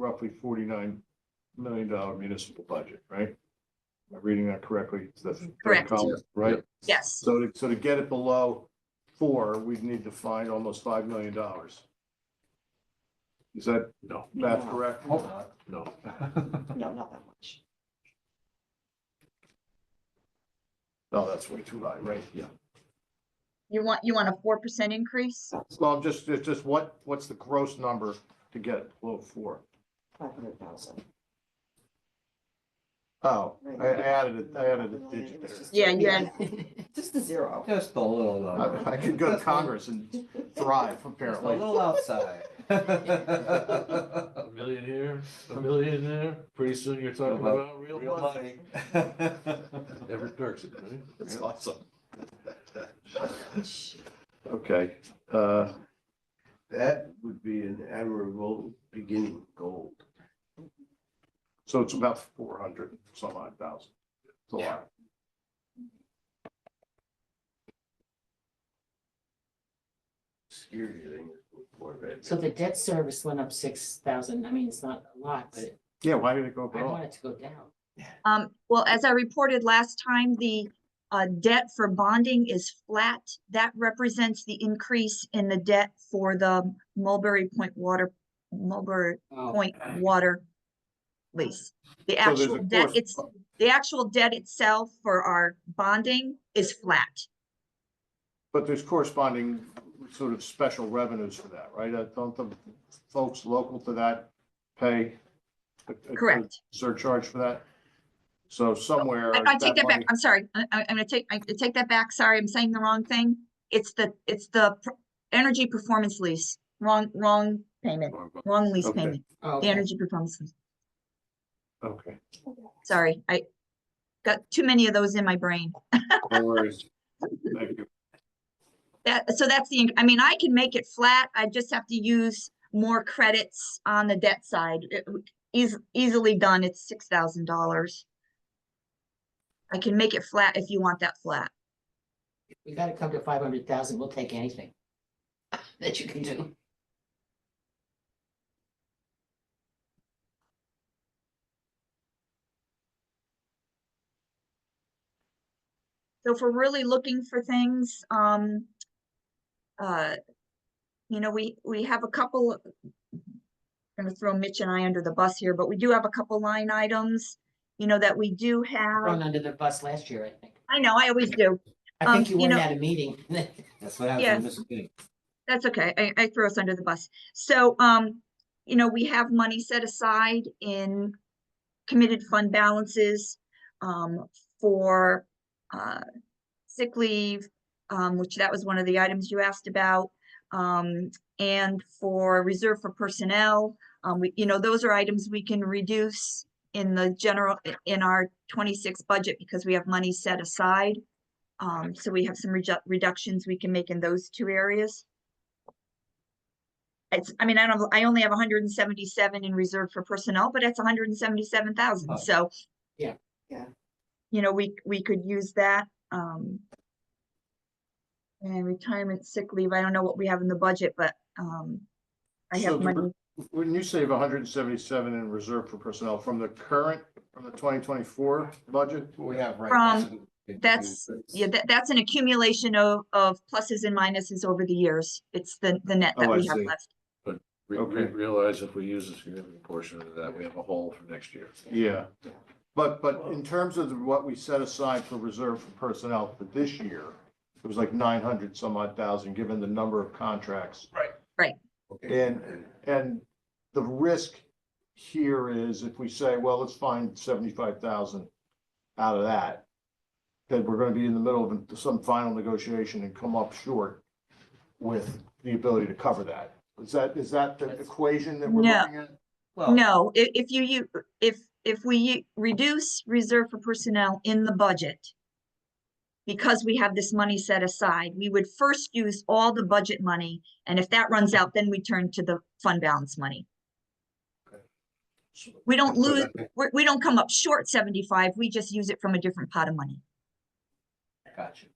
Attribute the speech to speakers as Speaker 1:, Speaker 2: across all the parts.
Speaker 1: roughly forty-nine million dollar municipal budget, right? Am I reading that correctly? It's the third
Speaker 2: Correct.
Speaker 1: column, Right?
Speaker 2: Yes,
Speaker 1: So to, so to get it below four, we'd need to find almost five million dollars. Is that
Speaker 3: No.
Speaker 1: math correct?
Speaker 3: No.
Speaker 4: No, not that much.
Speaker 1: No, that's way too high, right?
Speaker 3: Yeah.
Speaker 2: you want, you want a four percent increase?
Speaker 1: Well, I'm just, it's just what, what's the gross number to get it below four?
Speaker 4: Five hundred thousand.
Speaker 1: Oh, I added it, I added a digit there.
Speaker 2: Yeah, you
Speaker 4: Just the zero.
Speaker 5: Just a little. uh,
Speaker 1: I I could go to
Speaker 5: just a-
Speaker 1: Congress and thrive,
Speaker 5: Just a
Speaker 1: apparently.
Speaker 5: little outside.
Speaker 3: A million here, a million there, pretty soon you're talking
Speaker 5: Real
Speaker 3: about real
Speaker 5: Real
Speaker 3: money.
Speaker 5: money.
Speaker 3: Never darks it, right?
Speaker 1: That's awesome. Okay, uh,
Speaker 6: That would be an admirable beginning goal.
Speaker 1: so it's about four hundred some odd thousand. It's a lot.
Speaker 6: Scary thing is for that.
Speaker 7: So the debt service went up six thousand, I mean, it's not a lot, but
Speaker 1: Yeah, why did it go
Speaker 7: I want
Speaker 1: wrong?
Speaker 7: it to go down.
Speaker 2: Um, well, as I reported last time, the uh, debt for bonding is flat. That represents the increase in the debt for the Mulberry Point Water, Mulberry Point Water lease. The
Speaker 1: Oh. So there's a
Speaker 2: actual debt,
Speaker 1: course-
Speaker 2: it's, the actual debt itself for our bonding is flat.
Speaker 1: But there's corresponding sort of special revenues for that, right? Uh, Don't the folks local to that pay? a- a- a
Speaker 2: Correct.
Speaker 1: Surcharge for that? So somewhere.
Speaker 2: I, I take that back.
Speaker 1: money-
Speaker 2: I'm sorry. I, I- I'm gonna take, I I take that back. Sorry, I'm saying the wrong thing. It's the, it's the pr- energy performance lease, wrong, wrong payment, wrong lease
Speaker 1: Okay.
Speaker 2: payment,
Speaker 7: Oh,
Speaker 2: the energy performance. lease.
Speaker 1: Okay,
Speaker 2: Sorry, I got too many of those in my brain.
Speaker 1: no worries. Thank you.
Speaker 2: That, so that's the, inc- I mean, I can make it flat. I just have to use more credits on the debt side. It w- Eas- easily done. It's six thousand dollars. I can make it flat if you want that flat.
Speaker 7: we gotta come to five hundred thousand, we'll take anything that you can do.
Speaker 2: So if we're really looking for things, um, uh, you know, we, we have a couple, I'm gonna throw Mitch and I under the bus here, but we do have a couple line items, you know, that we do have.
Speaker 4: Um,
Speaker 7: Thrown under the bus last year, I think.
Speaker 2: I know, I always do.
Speaker 7: I
Speaker 2: Um,
Speaker 7: think you
Speaker 2: you
Speaker 7: weren't
Speaker 2: know-
Speaker 7: at a meeting.
Speaker 4: uh,
Speaker 5: That's what happens
Speaker 2: Yes.
Speaker 5: in Mississippi.
Speaker 2: That's okay. I, I throw us under the bus. So, um, you know, we have money set aside in committed fund balances, um, for, uh, sick leave, um, which that was one of the items you asked about, um, and for reserve for personnel. Um, we, you know, those are items we can reduce in the general, i- in our twenty-six budget because we have money set aside. Um, so we have some reju- reductions we can make in those two areas. It's, I mean, I don't, I only have hundred and seventy-seven in reserve for personnel, but it's hundred and seventy-seven thousand,
Speaker 5: Oh.
Speaker 2: so.
Speaker 7: Yeah.
Speaker 4: Yeah.
Speaker 2: You know, we, we could use that, um. And retirement sick leave, I don't know what we have in the budget, but, um, I
Speaker 1: So
Speaker 2: have
Speaker 1: the re-
Speaker 2: money,
Speaker 1: Wouldn't you save hundred and seventy-seven in reserve for personnel from the current, from the twenty twenty-four budget?
Speaker 5: We have right.
Speaker 2: From-
Speaker 5: now.
Speaker 2: that's- yeah, that, that's an accumulation of, of pluses and minuses over the years. It's the, the net that
Speaker 1: Oh, I
Speaker 2: we have
Speaker 1: see.
Speaker 2: left.
Speaker 3: Re- re-
Speaker 1: Okay.
Speaker 3: Realize if we use a significant portion of that, we have a hole for next year.
Speaker 1: Yeah, but, but in terms of what we set aside for reserve for personnel for this year, it was like nine hundred some odd thousand, given the number of contracts.
Speaker 3: Right.
Speaker 2: Right.
Speaker 1: And, and the risk here is if we say, well, let's find seventy-five thousand out of that, then we're gonna be in the middle of some final negotiation and come up short with the ability to cover that. Is that, is that the equation that we're
Speaker 2: No.
Speaker 1: looking at?
Speaker 7: Oh.
Speaker 5: Well,
Speaker 2: No, i- if you, you, if, if we u- reduce reserve for personnel in the budget, because we have this money set aside, we would first use all the budget money, and if that runs out, then we turn to the fund balance money. We don't lose, we, we don't come up short seventy-five, we just use it from a different pot of money.
Speaker 5: Gotcha.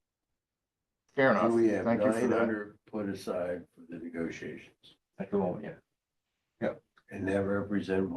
Speaker 1: Fair enough.
Speaker 6: And we have
Speaker 1: Thank you for
Speaker 6: nine
Speaker 1: that.
Speaker 6: hundred put aside for the negotiations,
Speaker 5: At the moment, yeah.
Speaker 6: and that represent